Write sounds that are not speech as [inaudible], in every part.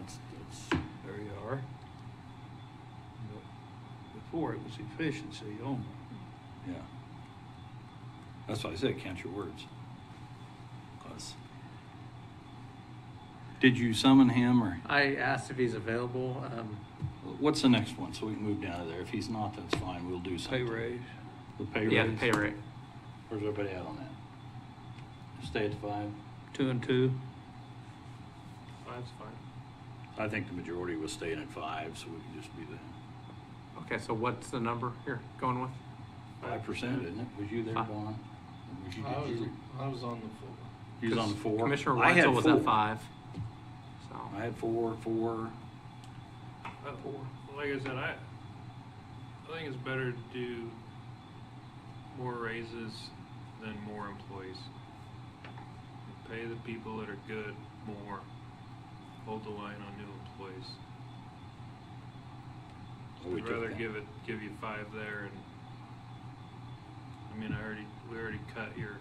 it's, it's, there you are. But Before it was efficiency only. Yeah. That's why I said count your words. 'Cause- Did you summon him or I asked if he's available. Um, what's the next one so we can move down to there? If he's not, that's fine. We'll do Pay something. raise, The pay raise. yeah, the pay rate. Where's everybody at on that? Stay at the five. two and two, That's fine. I think the majority was staying at five, so we can just be the Okay, so what's the number you're going with? five percent, isn't it? Was you there, Five. Don? Was you, I did was, you, I was on the floor. you was on the Because four? Commissioner I had Weitzel was at four. five. So I had four, four. Uh, Like I said, I, I think it's better to do more raises than more employees. Pay the people that are good more, hold the line on new employees. Oh, we I'd took rather that. give it, give you five there and, I mean, I already, we already cut your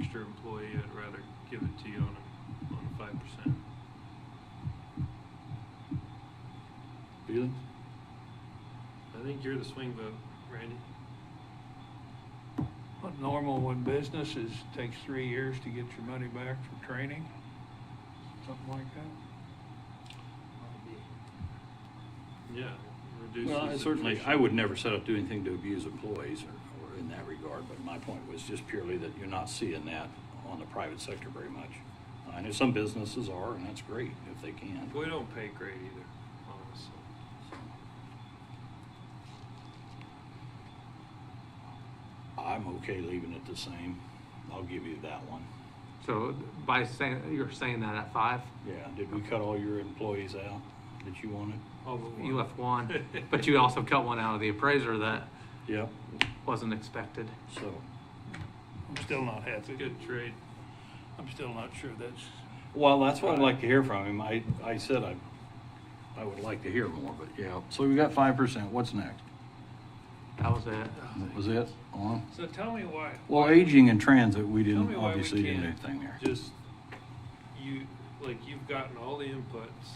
extra employee, I'd rather give it to you on a, on a five percent. Feelings? I think you're the swing vote, Randy. What normal when business is, takes three years to get your money back for training, something like that. Yeah. reduces Well, I the certainly, commission. I would never set up to do anything to abuse employees or, or in that regard, but my point was just purely that you're not seeing that on the private sector very much. I know some businesses are, and that's great if they can. We don't pay great either, honestly. I'm okay leaving it the same. I'll give you that one. so by saying, you're saying that at five? Yeah, did we cut all your employees out that you wanted? All but You left [laughs] one, but you also cut one out of the appraiser that Yep. wasn't expected. So, I'm still not It's a happy. good trade. I'm still not sure that's, well, that's what I'd like to hear from him. I, I said I, I would like to hear more, but yeah. So we got five percent. What's next? That was it. That Was it on? So tell me why. Well, aging in transit, we Tell didn't, me why we obviously didn't do can't anything there. Just, you, like, you've gotten all the inputs.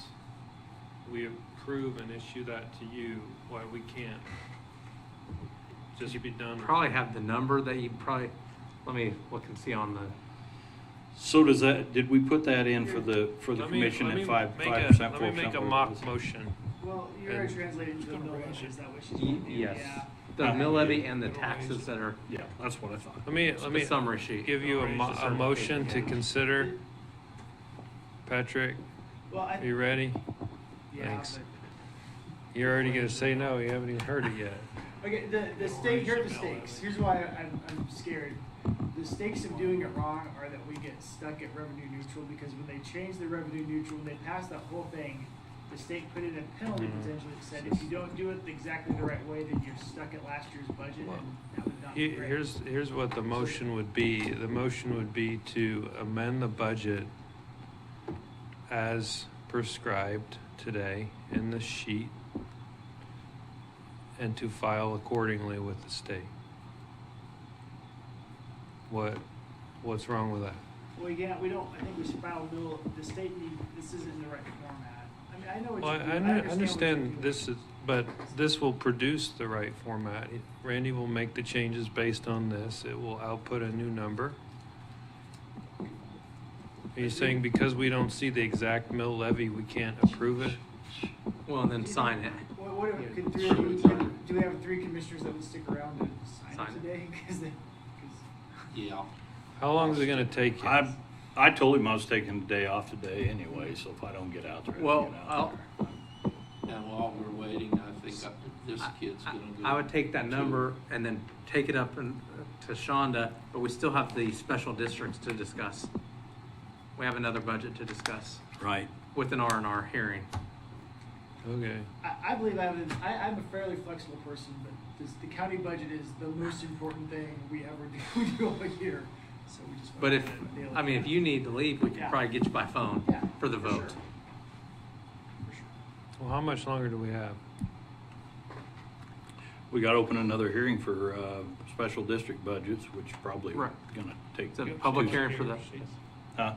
We approve and issue that to you, why we can't just be done. with Probably it. have the number that you probably, let me look and see on the, So does that, did we put that in for the, for the Let me- commission let me at five, make a- five percent, Let four me percent? make a mock motion. Well, you're already And- translated to the mill levy, is that what she's gonna do? yes. Yeah. The mill levy and the taxes that are, Yeah, that's what I thought. Let me, let me. the summary sheet. Give you a mo- a motion to consider. Patrick, Well, I, are you ready? yeah, thanks. You're already gonna say no, you haven't even heard it yet. but, okay, the, the stake, here are the stakes, here's why I'm, I'm scared. The stakes of doing it wrong are that we get stuck at revenue neutral, because when they change the revenue neutral, when they pass that whole thing, the state put in a penalty Mhm. potentially that said, if you don't do it exactly the right way, then you're stuck at last year's budget, Well, and that would not be Here- great. Here's, here's what the motion would be. The motion would be to amend the budget as prescribed today in the sheet and to file accordingly with the state. What, what's wrong with that? Well, yeah, we don't, I think we should file a bill, the state need, this isn't the right format. I mean, I know what Well, I, you're I doing, I understand. understand what you're this doing. is, but this will produce the right format. Randy will make the changes based on this. It will output a new number. Are you saying because we don't see the exact mill levy, we can't approve it? well, and then sign it. What, what, if- could three, Sure. of you- could- do we have three commissioners that would stick around and sign Sign it. it today? [laughs] Cause they, cause. Yeah. How long is it gonna take you? I, I told him I was taking the day off today anyway, so if I don't get out there, I don't Well, get I'll- out there. And while we're waiting, I think I- this kid's I- gonna do. I would take that number and then take it up and, uh, to Shonda, but we still have the special districts to discuss. We have another budget to discuss Right. with an R and R hearing. Okay. I, I believe I have, a- I, I'm a fairly flexible person, but this, the county budget is the most important thing we ever [laughs] do, we do all year, so we just. wanna But if, nail it I mean, if down. you need to leave, we can Yeah. probably get you by phone Yeah, for the sure. vote. For sure. Well, how much longer do we have? We gotta open another hearing for, uh, special district budgets, which probably Right. gonna take. It's a two- public hearing for the, Huh?